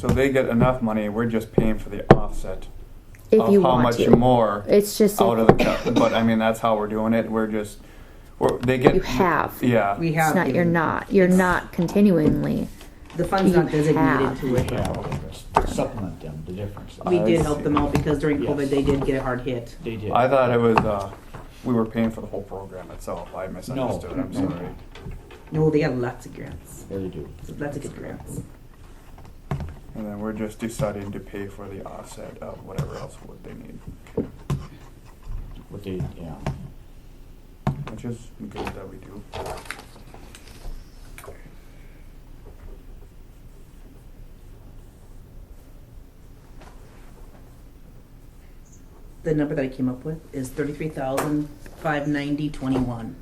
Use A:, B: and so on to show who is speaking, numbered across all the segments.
A: So they get enough money, we're just paying for the offset
B: if
A: of
B: you
A: how
B: want
A: much
B: to.
A: more
B: It's just
A: out
B: if
A: of the cut. But I mean, that's how we're doing it. We're just, we're, they get.
B: you have.
A: Yeah.
C: We have.
B: It's not, you're
C: given-
B: not, you're not continually.
C: The fund's not
B: you
C: designated
B: have.
C: to it.
D: Supplement them, the difference.
C: We
A: I
C: did help them out because during
D: Yes.
C: COVID, they did get a hard hit.
D: They did.
A: I thought it was, uh, we were paying for the whole program itself. I misunderstood. I'm
D: No.
A: sorry.
C: No, they got lots of grants,
D: They do.
C: lots of good grants.
A: And then we're just deciding to pay for the offset of whatever else would they need,
D: What they, yeah.
A: which is good that we do.
C: The number that I came up with is thirty-three thousand, five ninety, twenty-one.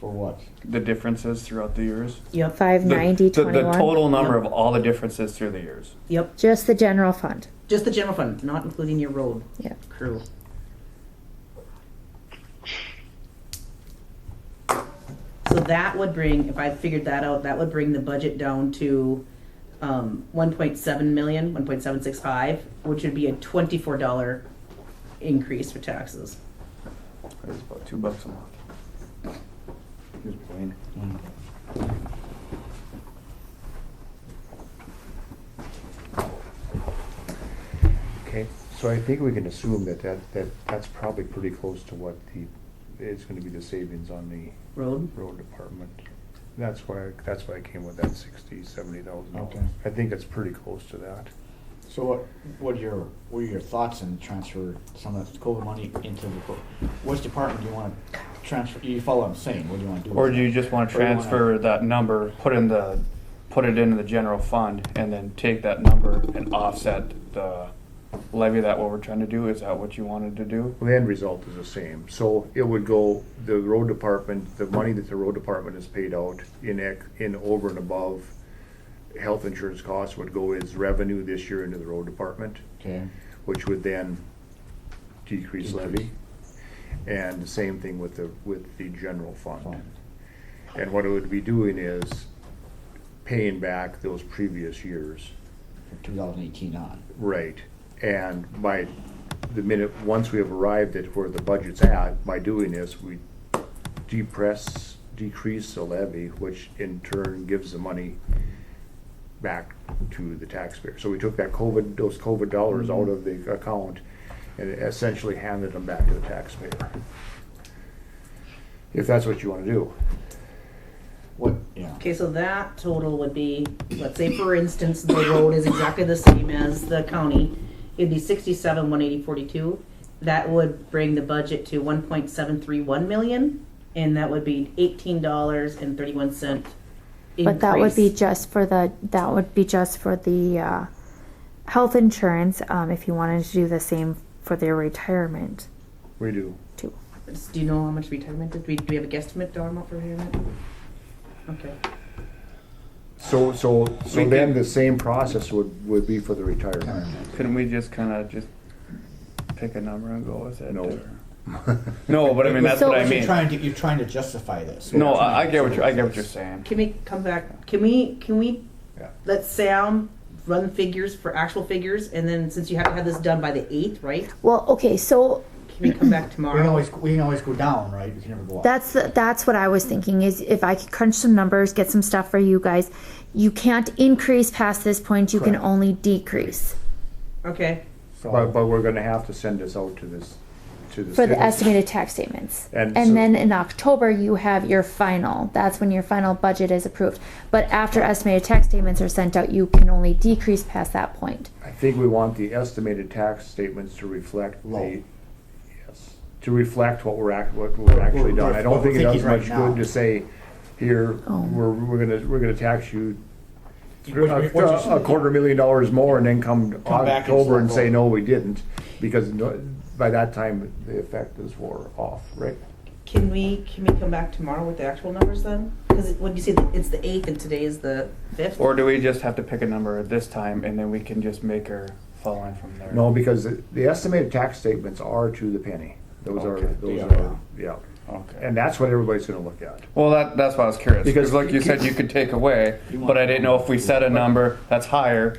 D: For what?
A: The differences throughout the years.
C: Yep,
B: Five
A: The-
B: ninety
A: the,
B: twenty
A: the
B: one.
A: total number of all the differences through the years.
C: yep,
B: Just the general fund.
C: just the general fund, not including your road
B: Yeah.
C: crew. So that would bring, if I figured that out, that would bring the budget down to, um, one point seven million, one point seven six five, which would be a twenty-four dollar increase for taxes.
A: It's about two bucks a month.
D: Here's Blaine.
E: Okay, so I think we can assume that that, that that's probably pretty close to what the, it's gonna be the savings on the
C: Road,
E: road department. That's why, that's why I came with that sixty, seventy thousand
D: Okay.
E: dollars. I think it's pretty close to that.
D: So what, what are your, what are your thoughts on transfer some of the COVID money into the, co- which department do you wanna transfer, you follow what I'm saying, what do you wanna do? with
A: Or do
D: that?
A: you just want to
D: Or you wanna-
A: transfer that number, put in the, put it into the general fund, and then take that number and offset the levy that what we're trying to do? Is that what you wanted to do?
E: Well, the end result is the same, so it would go, the road department, the money that the road department has paid out in ec, in over and above health insurance costs would go as revenue this year into the road department.
D: Okay,
E: which would then decrease levy. And the same thing with the, with the general fund.
D: fine.
E: And what it would be doing is paying back those previous years.
D: For two thousand eighteen on.
E: Right. And by the minute, once we have arrived at where the budget's at, by doing this, we depress, decrease the levy, which in turn gives the money back to the taxpayer. So we took that COVID, those COVID dollars out of the account and essentially handed them back to the taxpayer. If that's what you want to do.
D: What, yeah,
C: Okay, so that total would be, let's say for instance, the road is exactly the same as the county. It'd be sixty-seven, one eighty, forty-two. That would bring the budget to one point seven three one million, and that would be eighteen dollars and thirty-one cent
B: But that would be
C: increase.
B: just for the, that would be just for the, uh, health insurance, um, if you wanted to do the same for their retirement
E: We do.
B: too.
C: Do you know how much retirement, did we, do we have a guesstimate dollar amount for retirement? Okay,
E: So, so, so
A: We
E: then
A: can-
E: the same process would, would be for the retirement.
A: Couldn't we just kind of just pick a number and go with it?
E: No.
A: or- No, but I mean, that's
B: So-
A: what I
D: You're
A: mean.
D: trying to, you're trying to justify this.
A: No, I, I get what you're, I get what you're saying.
C: can we come back, can we, can we,
E: Yeah.
C: let Sam run figures for actual figures, and then since you have to have this done by the eighth, right?
B: Well, okay, so
C: Can we come back
D: We can
C: tomorrow?
D: always, we can always go down, right, we can never go up.
B: That's the, that's what I was thinking is if I could crunch some numbers, get some stuff for you guys. You can't increase past this point. You can
D: Correct.
B: only decrease
C: Okay,
E: But, but we're gonna have to send this out to this, to the.
B: for the
E: citizens.
B: estimated tax statements.
E: And
B: And,
E: so-
B: then in October you have your final. That's when your final budget is approved. But after estimated tax statements are sent out, you can only decrease past that point.
E: I think we want the estimated tax statements to reflect the,
D: Low.
E: yes, to reflect what we're act, what we're actually done. I
D: What
E: don't
D: we're
E: think it does
D: thinking right
E: much
D: now.
E: good to say, here,
B: Oh.
E: we're, we're gonna, we're gonna tax you
D: What you- what you
E: a a
D: should-
E: quarter million dollars more and then come
D: Come back and
E: October and
D: say,
E: say, no, we didn't, because no- by that time, the effect is wore off, right?
C: Can we, can we come back tomorrow with the actual numbers then? Because what you say, it's the eighth and today is the fifth?
A: Or do we just have to pick a number this time and then we can just make her fall in from there?
E: No, because the the estimated tax statements are to the penny. Those are,
A: Okay.
E: those
D: Yeah.
E: are, yeah.
A: Okay.
E: And that's what everybody's gonna look at.
A: Well, that, that's why I was curious.
E: Because
A: Because like you said, you could take away,
D: You
A: but I didn't know if we set a number that's higher